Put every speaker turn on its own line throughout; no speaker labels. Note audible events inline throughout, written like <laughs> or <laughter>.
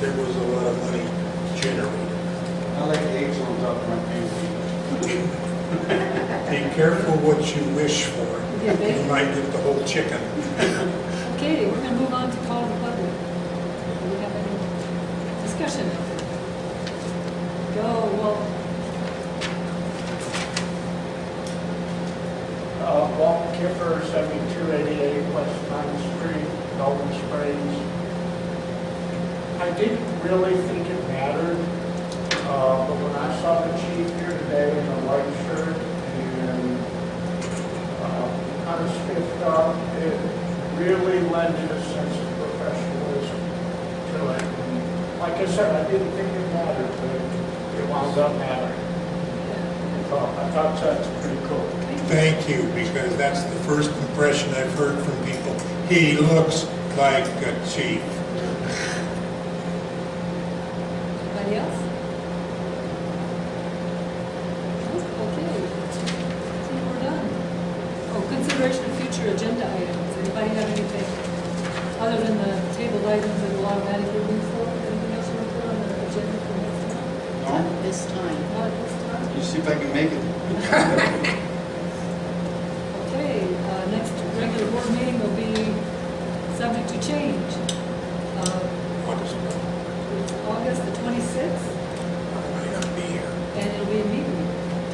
there was a lot of money generated.
I like the eggs on top of my pancake.
Be careful what you wish for. You might get the whole chicken.
Okay, we're gonna move on to call the public. Do we have any discussion? Go, well,
Uh, Walt Kipper, 7288 West Pine Street, Golden Springs. I didn't really think it mattered, uh, but when I saw the chief here today in a white shirt and uh, kind of spiffed up, it really lended a sense of professionalism to it. And Like I said, I didn't think it mattered, but it wound up mattering. I thought- I thought that's pretty cool.
Thank you, because that's the first impression I've heard from people. He looks like a chief.
anybody else? Okay, I think we're done. Oh, consideration of future agenda items, anybody have anything? Other than the table items that will automatically move forward, anything else you want to put on the agenda for next time?
No?
this time.
Not at this time?
You see if I can make it.
Okay, uh, next regular board meeting will be subject to change. Uh,
I
It's August the 26th,
might not be here.
and it'll be a meeting.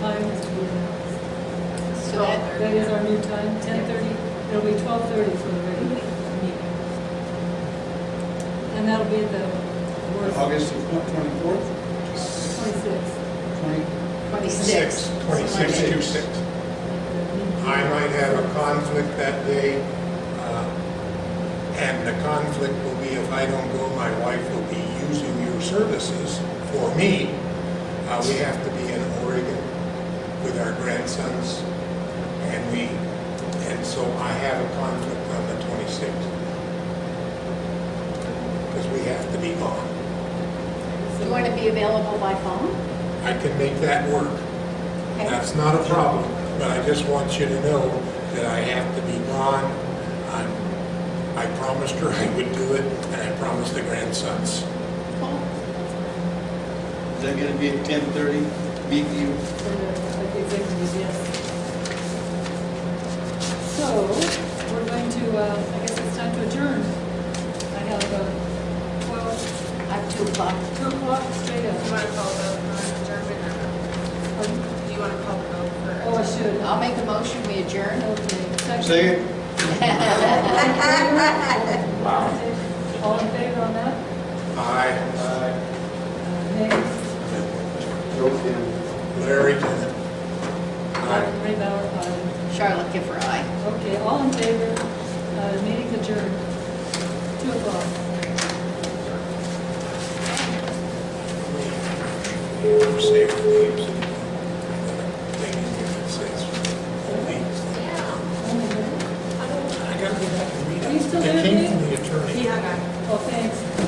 Time is to be announced.
So that,
That is our new time, 10:30, it'll be 12:30 for the regular meeting. And that'll be at the worst,
August twenty-fourth,
26th.
twenty,
twenty-six.
Twenty-six,
Monday.
two-six. I might have a conflict that day, uh, and the conflict will be if I don't go, my wife will be using your services for me. Uh, We have to be in Oregon with our grandsons, and we, and so I have a conflict on the 26th. Because we have to be gone.
You want to be available by phone?
I can make that work.
Okay.
That's not a problem, but I just want you to know that I have to be gone. I'm, I promised her I would do it, and I promised the grandsons.
Cool.
is that gonna be at ten-thirty, BQ?
for the for the executive, yes. So, we're going to, uh, I guess it's time to adjourn. I have uh, 12,
I have two o'clock.
2 o'clock straight
Do you
up.
want to call the vote for adjournment or
Pardon?
no? Do you want to call the vote for?
Oh, I should.
I'll make a motion, we adjourn.
Okay.
Say it.
All in favor on that?
I,
Uh,
Uh, Nay?
Joe Kim.
Larry Dennett. I.
Ray Bauer, aye.
<laughs> Charlotte Giffer, aye.
Okay, all in favor, uh, meeting adjourned, 2 o'clock.
Save the names and thing in here that says, only, I gotta go back and read it.
Are you still
It
there,
came
Dave?
from the attorney.
Yeah, I got it.
Oh, thanks.